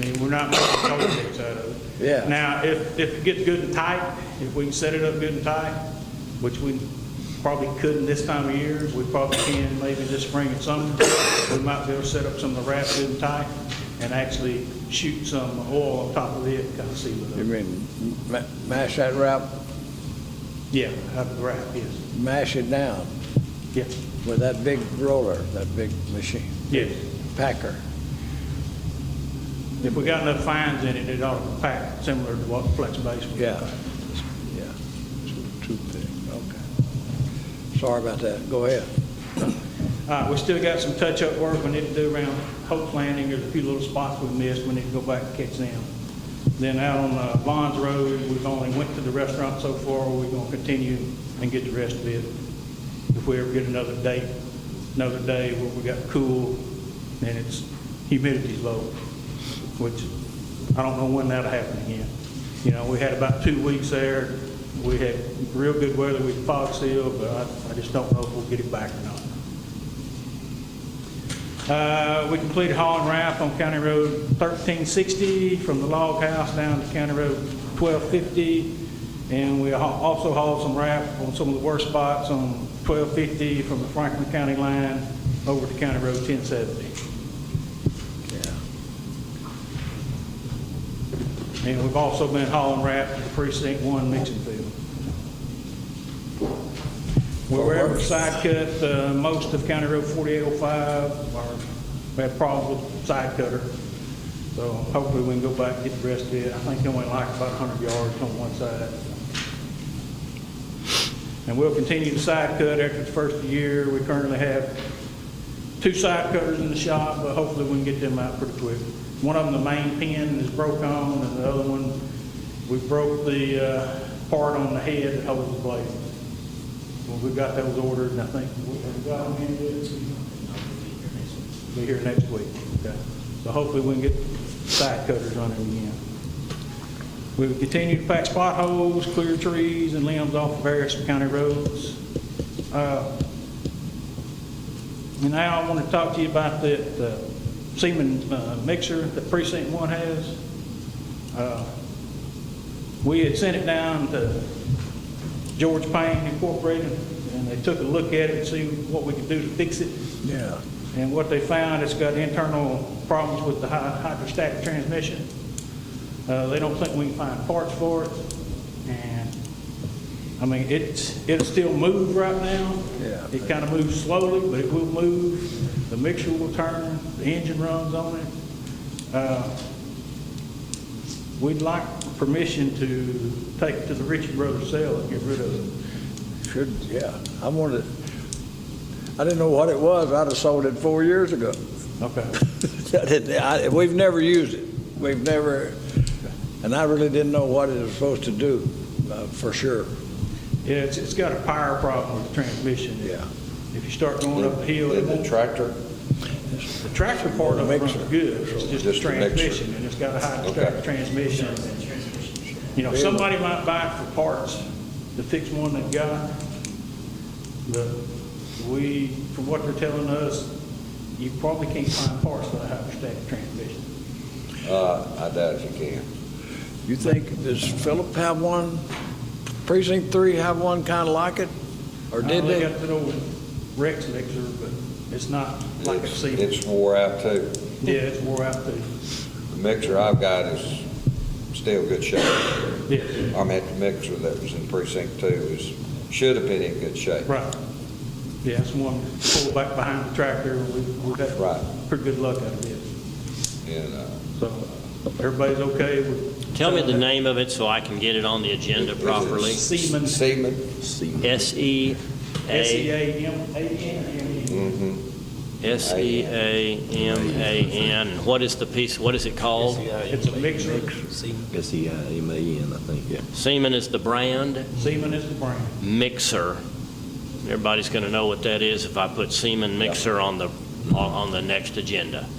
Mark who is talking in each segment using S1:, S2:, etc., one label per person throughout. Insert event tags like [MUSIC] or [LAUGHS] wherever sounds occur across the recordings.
S1: not making politics out of it.
S2: Yeah.
S1: Now, if, if it gets good and tight, if we can set it up good and tight, which we probably couldn't this time of year, we probably can maybe this spring and summer, we might be able to set up some of the wraps good and tight and actually shoot some oil on top of it, kind of see what,
S2: You
S1: it-
S2: mean, ma- mash that wrap, Mm-hmm.
S1: yeah, out of the wrap, yes,
S2: mash it down
S1: yeah,
S2: with that big roller, that big machine,
S1: yes.
S2: packer.
S1: If we got enough fines in it, it ought to pack similar to what flex base was.
S2: Yeah, yeah, Too- too thick, okay. Sorry about that, go ahead.
S1: Uh, we still got some touch-up work we need to do around Hope Landing, there's a few little spots we missed, we need to go back and catch them. Then out on uh, Bonds Road, we've only went to the restaurant so far, we're gonna continue and get the rest of it. If we ever get another date, another day where we got cool and it's humidity's low, which I don't know when that'll happen again. You know, we had about two weeks there, we had real good weather, we fog sealed, but I, I just don't know if we'll get it back or not. Uh, We completed haul and wrap on County Road 1360 from the log house down to County Road 1250. And we ha- also hauled some wrap on some of the worst spots on 1250 from the Franklin County line over to County Road 1070. And we've also been hauling wrap to the precinct one mixing field. We were able to side cut uh, most of County Road 4805, or we had problems with side cutter. So hopefully we can go back and get the rest of it. I think they only like about 100 yards on one side. And we'll continue to side cut after the first year. We currently have two side cutters in the shop, but hopefully we can get them out pretty quick. One of them, the main pin is broke on, and the other one, we broke the uh, part on the head that holds the blade. Well, we got those ordered, and I think we have got them in yet? Be here next week, okay. So hopefully we can get side cutters on it again. We will continue to patch potholes, clear trees and limbs off of various county roads. Uh, and now I want to talk to you about the the Siemens uh, mixer that precinct one has. Uh, We had sent it down to George Payne Incorporated, and they took a look at it and see what we could do to fix it.
S2: Yeah,
S1: And what they found, it's got internal problems with the hy- hydrostatic transmission. Uh, They don't think we can find parts for it, and, I mean, it's, it'll still move right now.
S2: Yeah.
S1: It kind of moves slowly, but it will move. The mixture will turn, the engine runs on it. Uh, We'd like permission to take it to the Ritchie Brothers sale and get rid of it.
S2: should, yeah, I wanted, I didn't know what it was, I'd have sold it four years ago. [LAUGHS]
S1: Okay.
S2: I didn't- I- We've never used it. We've never, and I really didn't know what it was supposed to do, uh, for sure.
S1: Yeah, it's, it's got a power problem with the transmission.
S2: Yeah.
S1: If you start going up a hill, it
S3: Did the
S1: won't-
S3: tractor,
S1: the tractor part of it runs
S2: Mixer.
S1: good, it's just the
S3: Just the mixer.
S1: transmission, and it's got a high
S3: Okay.
S1: transmission. You know, somebody might buy it for parts to fix one they got, but we, from what they're telling us, you probably can't find parts for the hydrostatic transmission.
S3: uh, I doubt if you can.
S2: You think, does Philip have one, precinct three have one kind of like it? Or did
S1: I
S2: they?
S1: got that old Rex mixer, but it's not like a
S3: It's-
S1: Siemens.
S3: It's wore out too.
S1: Yeah, it's wore out too.
S3: The mixer I've got is still good shape.
S1: Yeah,
S3: I mean, the mixer that was in precinct two is, should have been in good shape.
S1: Right. Yeah, it's one pulled back behind the tractor. We've we've
S3: Right.
S1: had pretty good luck out of it.
S3: And, uh,
S1: So everybody's okay with.
S4: Tell me the name of it so I can get it on the agenda
S3: Is it-
S4: properly.
S1: Seaman.
S3: Seaman,
S1: S E
S4: S-E-A,
S1: A M A N. E.
S4: E S-E-A-M-A-N. And What is the piece, what is it called?
S1: It's a mixer.
S5: S-E-I-M-A-N, I think, yeah.
S4: Seaman is the brand,
S1: Seaman is the brand.
S4: Mixer. Everybody's going to know what that is if I put Seaman Mixer on the, on- on the next agenda. [LAUGHS]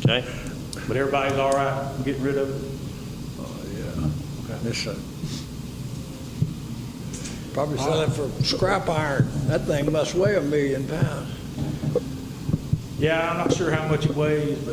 S4: Okay?
S1: But everybody's all right getting rid of it.
S2: Oh, yeah. This, uh, Probably selling for scrap iron. That thing must weigh a million pounds.
S1: Yeah, I'm not sure how much it weighs, but